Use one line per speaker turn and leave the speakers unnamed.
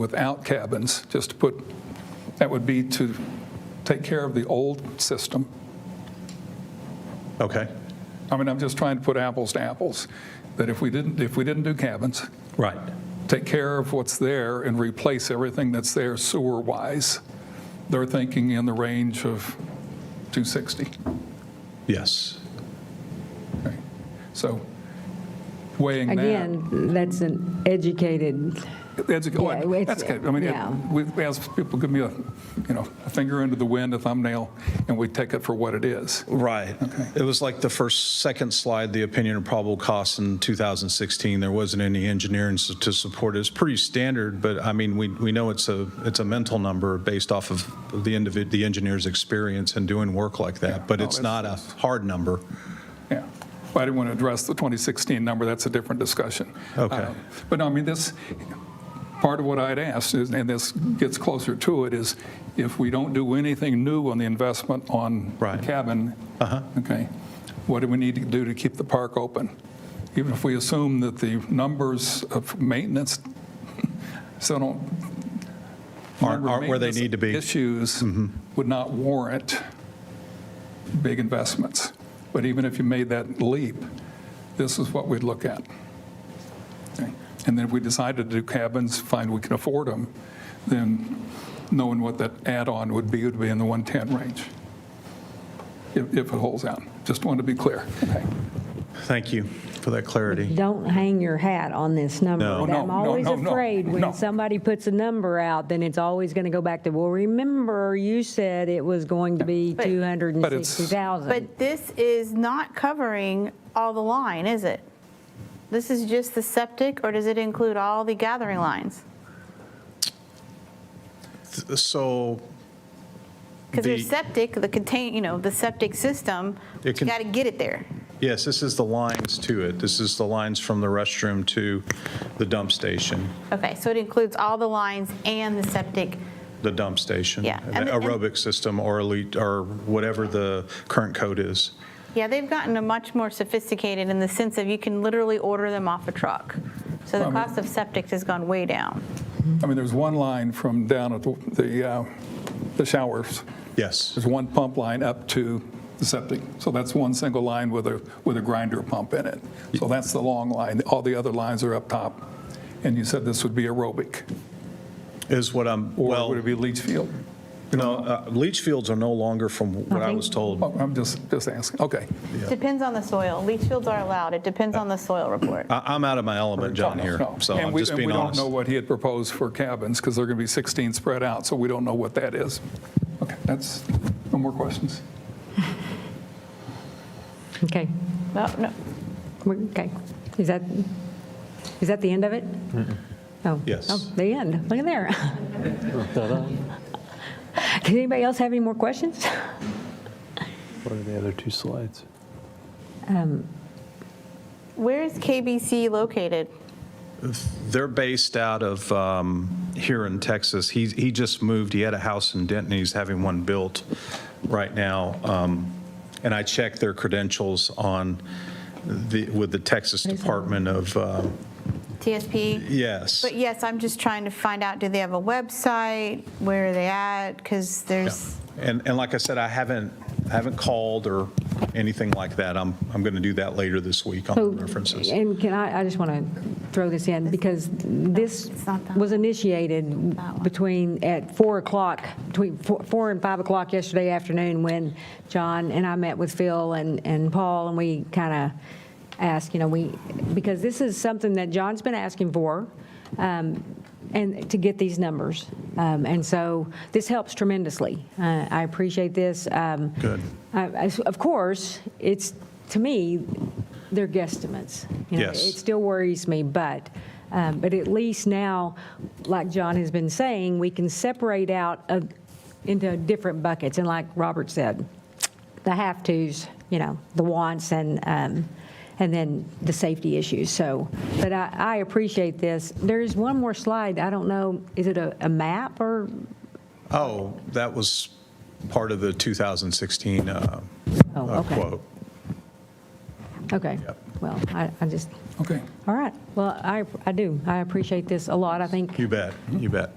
without cabins, just to put, that would be to take care of the old system.
Okay,
I mean, I'm just trying to put apples to apples, that if we didn't, if we didn't do cabins,
right.
take care of what's there and replace everything that's there sewer-wise, they're thinking in the range of 260.
Yes.
Okay. So weighing that.
Again, that's an educated,
That's,
Yeah, it's-
that's good. I mean,
yeah.
it- we we ask people, give me a, you know, a finger into the wind, a thumbnail, and we take it for what it is.
Right. It was like the first, second slide, the opinion of probable costs in 2016. There wasn't any engineering s- to support it. It's pretty standard, but I mean, we, we know it's a, it's a mental number based off of the individ, the engineer's experience in doing work like that, but
no,
it's
Oh, it's-
not a hard number.
Yeah. But I didn't want to address the 2016 number. That's a different discussion.
Okay.
Uh, But no, I mean, this, part of what I'd asked, is- and this gets closer to it, is if we don't do anything new on the investment on
Right. Uh-huh.
cabin, okay, what do we need to do to keep the park open? Even if we assume that the numbers of maintenance still don't
Aren't, aren't where they need to be. Mm-hmm.
Issues would not warrant big investments. But even if you made that leap, this is what we'd look at. Okay. And then if we decided to do cabins, fine, we can afford them, then knowing what that add-on would be, would be in the 110 range, if if it holds out. Just wanted to be clear. Okay.
Thank you for that clarity.
don't hang your hat on this number.
No.
But
No,
I'm
no,
always
no, no,
afraid
no.
when somebody puts a number out, then it's always going to go back to, well, remember, you said it was going to be
But-
But it's-
260,000.
But this is not covering all the line, is it? This is just the septic, or does it include all the gathering lines?
So
Because there's
The-
septic, the contain, you know, the septic system, you
It can-
got to get it there.
Yes, this is the lines to it. This is the lines from the restroom to the dump station,
Okay, so it includes all the lines and the septic.
the dump station.
Yeah,
An
and- and-
Aerobic system or elite, or whatever the current code is.
Yeah, they've gotten a much more sophisticated in the sense of you can literally order them off a truck. So the cost of septic has gone way down.
I mean, there's one line from down at the- the uh, the showers.
Yes,
There's one pump line up to the septic. So that's one single line with a, with a grinder pump in it. So that's the long line. All the other lines are up top. And you said this would be aerobic,
is what I'm,
or
well,
would it be leach field?
no, uh, leach fields are no longer from what I was told.
Oh, I'm just, just asking, okay.
Depends on the soil. Leach fields are allowed. It depends on the soil report.
I- I'm out of my element, John, here,
No.
so
And
I'm
we-
just being
And we
honest.
don't know what he had proposed for cabins, because they're going to be 16 spread out, so we don't know what that is. Okay, that's, no more questions?
Okay,
No, no,
We're- okay. Is that, is that the end of it? Oh.
Yes.
Oh, The end, look at there. Does anybody else have any more questions?
What are the other two slides?
Where is KBC located?
They're based out of um, here in Texas. He, he just moved, he had a house in Denton, he's having one built right now. Um, And I checked their credentials on the, with the Texas Department of, uh,
TSP?
yes.
But yes, I'm just trying to find out, do they have a website? Where are they at? Because there's,
And, and like I said, I haven't, I haven't called or anything like that. I'm, I'm going to do that later this week on the references.
And can I, I just want to throw this in, because this
it's not that
was initiated
That one.
between, at 4 o'clock, between four- 4 and 5 o'clock yesterday afternoon, when John and I met with Phil and, and Paul, and we kind of asked, you know, we, because this is something that John's been asking for, um, and to get these numbers. Um, And so this helps tremendously. Uh, I appreciate this. Um,
Good.
I- I- Of course, it's, to me, they're guesstimates. You know,
Yes.
It still worries me, but, um, but at least now, like John has been saying, we can separate out of- into different buckets. And like Robert said, the have-tos, you know, the wants and, um, and then the safety issues. So, but I, I appreciate this. There is one more slide. I don't know, is it a, a map or
Oh, that was part of the 2016 uh,
Oh,
uh,
okay.
quote.
Okay.
Yep.
well, I, I just,
Okay.
all right. Well, I, I do. I appreciate this a lot. I think
You bet, you bet.